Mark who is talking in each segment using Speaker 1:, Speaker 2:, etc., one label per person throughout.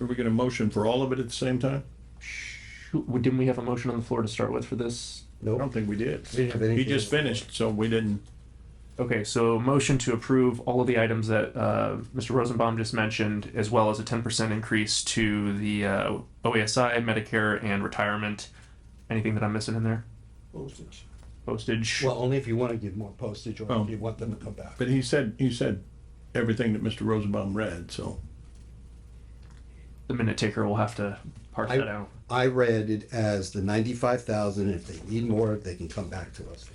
Speaker 1: Are we gonna motion for all of it at the same time?
Speaker 2: Who- Didn't we have a motion on the floor to start with for this?
Speaker 1: I don't
Speaker 3: Nope.
Speaker 1: think we did.
Speaker 3: didn't have anything.
Speaker 1: He just finished, so we didn't,
Speaker 2: Okay, so motion to approve all of the items that uh, Mr. Rosenbaum just mentioned, as well as a ten percent increase to the uh, OASI, Medicare, and retirement. Anything that I'm missing in there?
Speaker 3: Postage.
Speaker 2: Postage.
Speaker 3: Well, only if you want to give more postage or
Speaker 1: Oh.
Speaker 3: if you want them to come back.
Speaker 1: but he said, he said everything that Mr. Rosenbaum read, so.
Speaker 2: the minute taker will have to parse that
Speaker 3: I,
Speaker 2: out.
Speaker 3: I read it as the ninety-five thousand, if they need more, they can come back to us.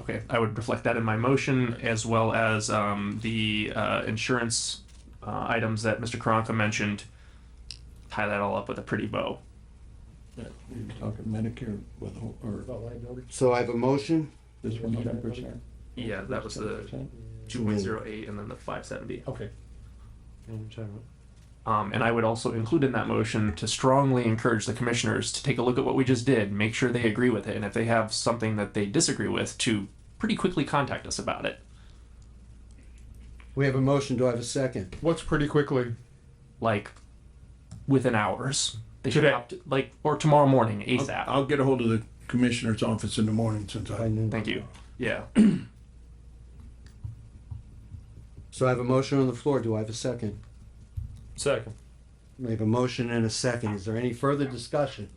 Speaker 2: Okay, I would reflect that in my motion as well as um, the uh, insurance uh, items that Mr. Karanka mentioned. Tie that all up with a pretty bow.
Speaker 1: You're talking Medicare with, or
Speaker 3: So I have a motion,
Speaker 1: this one ten percent?
Speaker 2: Yeah, that was the two point zero eight and then the five seventy.
Speaker 1: Okay.
Speaker 2: Um, and I would also include in that motion to strongly encourage the commissioners to take a look at what we just did, make sure they agree with it, and if they have something that they disagree with, to pretty quickly contact us about it.
Speaker 3: we have a motion, do I have a second?
Speaker 4: What's pretty quickly?
Speaker 2: Like within hours. They should
Speaker 4: Today.
Speaker 2: opt, like or tomorrow morning, ASAP.
Speaker 1: I'll get a hold of the commissioner's office in the morning since
Speaker 3: I
Speaker 1: I,
Speaker 3: knew.
Speaker 2: Thank you. Yeah.
Speaker 3: So I have a motion on the floor, do I have a second?
Speaker 4: Second.
Speaker 3: We have a motion and a second, is there any further discussion?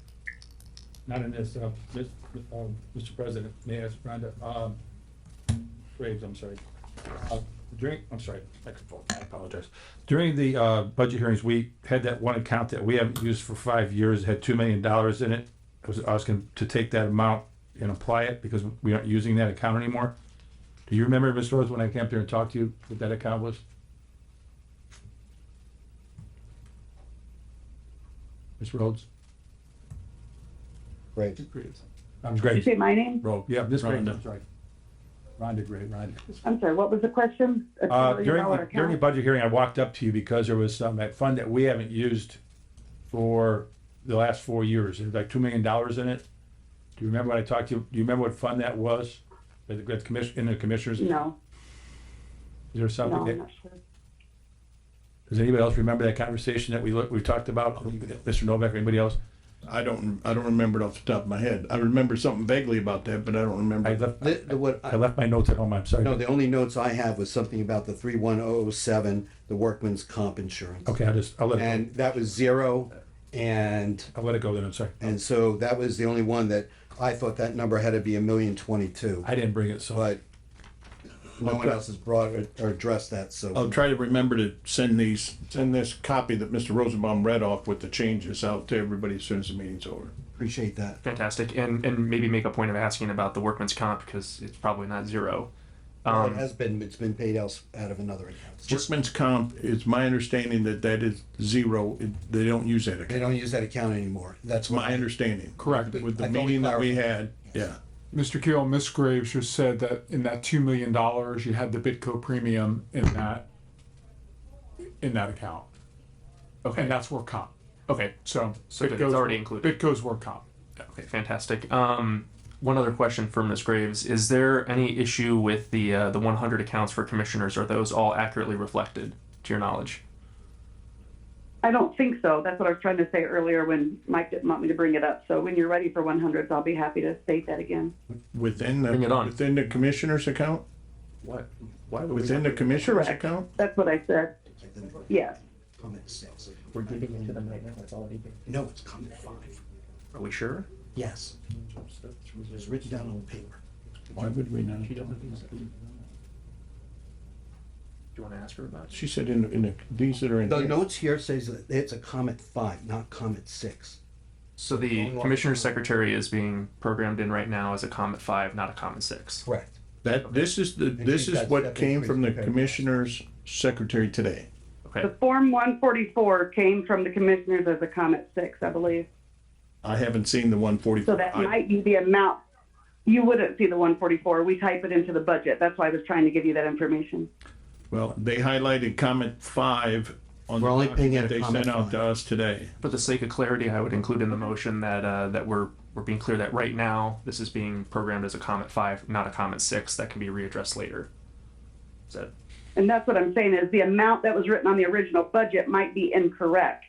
Speaker 5: Not in this, uh, this, um, Mr. President, Mayor Brenda, um, Graves, I'm sorry. Uh, During, I'm sorry, microphone, I apologize. During the, uh, budget hearings, we had that one account that we haven't used for five years, had two million dollars in it. I was asking to take that amount and apply it because we aren't using that account anymore. Do you remember, Mr. Rose, when I came up there and talked to you, what that account was? Ms. Rhodes?
Speaker 3: Great,
Speaker 5: I'm
Speaker 6: Did you say my name?
Speaker 5: Bro, yeah, this Gray,
Speaker 1: Rhonda.
Speaker 5: I'm sorry. Rhonda Gray, Rhonda.
Speaker 6: I'm sorry, what was the question? A
Speaker 5: Uh,
Speaker 6: $2
Speaker 5: during,
Speaker 6: million
Speaker 5: the- during the
Speaker 6: account?
Speaker 5: budget hearing, I walked up to you because there was some, that fund that we haven't used for the last four years, there's like two million dollars in it. Do you remember when I talked to you, do you remember what fund that was? At the, at the commission, in the commissioners, is
Speaker 6: No,
Speaker 5: there
Speaker 6: no,
Speaker 5: something
Speaker 6: I'm
Speaker 5: that,
Speaker 6: not sure.
Speaker 5: does anybody else remember that conversation that we looked, we talked about? Mr. Novak, or anybody else?
Speaker 1: I don't, I don't remember it off the top of my head. I remember something vaguely about that, but I don't
Speaker 5: I
Speaker 1: remember.
Speaker 5: left,
Speaker 3: The- the- what I-
Speaker 5: I left my notes at home, I'm
Speaker 3: No,
Speaker 5: sorry.
Speaker 3: the only notes I have was something about the three one oh oh seven, the workman's comp insurance.
Speaker 5: Okay, I'll just, I'll let it,
Speaker 3: And that was zero, and,
Speaker 5: go. I'll let it go then, I'm sorry.
Speaker 3: and so that was the only one that, I thought that number had to be a million twenty-two,
Speaker 5: I didn't bring it, so.
Speaker 3: but no one else has brought or- or addressed that,
Speaker 1: I'll
Speaker 3: so.
Speaker 1: try to remember to send these, send this copy that Mr. Rosenbaum read off with the changes out to everybody as soon as the meeting's over.
Speaker 3: Appreciate that.
Speaker 2: Fantastic. And and maybe make a point of asking about the workman's comp because it's probably not zero.
Speaker 3: Well, It
Speaker 2: Um,
Speaker 3: has been, it's been paid else out of another account.
Speaker 1: Workman's comp, it's my understanding that that is zero, It- they don't use that
Speaker 3: They
Speaker 1: account.
Speaker 3: don't use that account anymore.
Speaker 1: That's
Speaker 3: That's
Speaker 1: my
Speaker 3: why.
Speaker 1: understanding.
Speaker 4: Correct.
Speaker 1: With the
Speaker 3: I thought we
Speaker 1: meeting that we had, yeah.
Speaker 4: Mr. Keel, Ms. Graves just said that in that two million dollars, you had the Bitco premium in that, in that account. Okay, and that's work comp.
Speaker 2: okay.
Speaker 4: So.
Speaker 2: So it's
Speaker 4: Bitco's-
Speaker 2: already included.
Speaker 4: Bitco's work comp.
Speaker 2: Okay, fantastic. Um, one other question for Ms. Graves: Is there any issue with the uh, the 100 accounts for commissioners? Are those all accurately reflected to your knowledge?
Speaker 6: I don't think so. That's what I was trying to say earlier when Mike didn't want me to bring it up. So when you're ready for 100s, I'll be happy to state that again.
Speaker 1: Within the,
Speaker 2: Bring it on.
Speaker 1: within the commissioner's account?
Speaker 2: What? Why would
Speaker 1: Within the commissioner's
Speaker 6: Correct.
Speaker 1: account?
Speaker 6: That's what I said. Yes.
Speaker 2: We're giving it to them right now. That's all I need.
Speaker 3: No, it's coming five.
Speaker 2: Are we sure?
Speaker 3: Yes. It was written down on paper.
Speaker 1: Why would we not?
Speaker 2: She doesn't think so. Do you want to ask her about? it?
Speaker 1: She said in, in the, these that are in.
Speaker 3: The
Speaker 1: here.
Speaker 3: notes here says that it's a comment five, not comment six.
Speaker 2: So the commissioner secretary is being programmed in right now as a Comet Five, not a Comet Six.
Speaker 3: Correct.
Speaker 1: That, this is the, this
Speaker 3: she's
Speaker 1: is
Speaker 3: got
Speaker 1: what
Speaker 3: step
Speaker 1: came from the
Speaker 3: increase compared to-
Speaker 1: commissioner's secretary today.
Speaker 2: Okay.
Speaker 6: The Form 144 came from the commissioners as a comment six, I believe.
Speaker 1: I haven't seen the one
Speaker 6: So
Speaker 1: forty-four.
Speaker 6: that might be the amount. You wouldn't see the 144. We type it into the budget. That's why I was trying to give you that information.
Speaker 1: Well, they highlighted comment five on.
Speaker 3: We're
Speaker 1: the
Speaker 3: only paying
Speaker 1: document
Speaker 3: it a
Speaker 1: They
Speaker 3: comment
Speaker 1: sent out
Speaker 3: five.
Speaker 1: to us today.
Speaker 2: For the sake of clarity, I would include in the motion that, uh, that we're, we're being clear that right now, this is being programmed as a Comet five, not a Comet six, that can be readdressed later. Is that,
Speaker 6: And that's what I'm saying is the amount that was written on the original budget might be incorrect.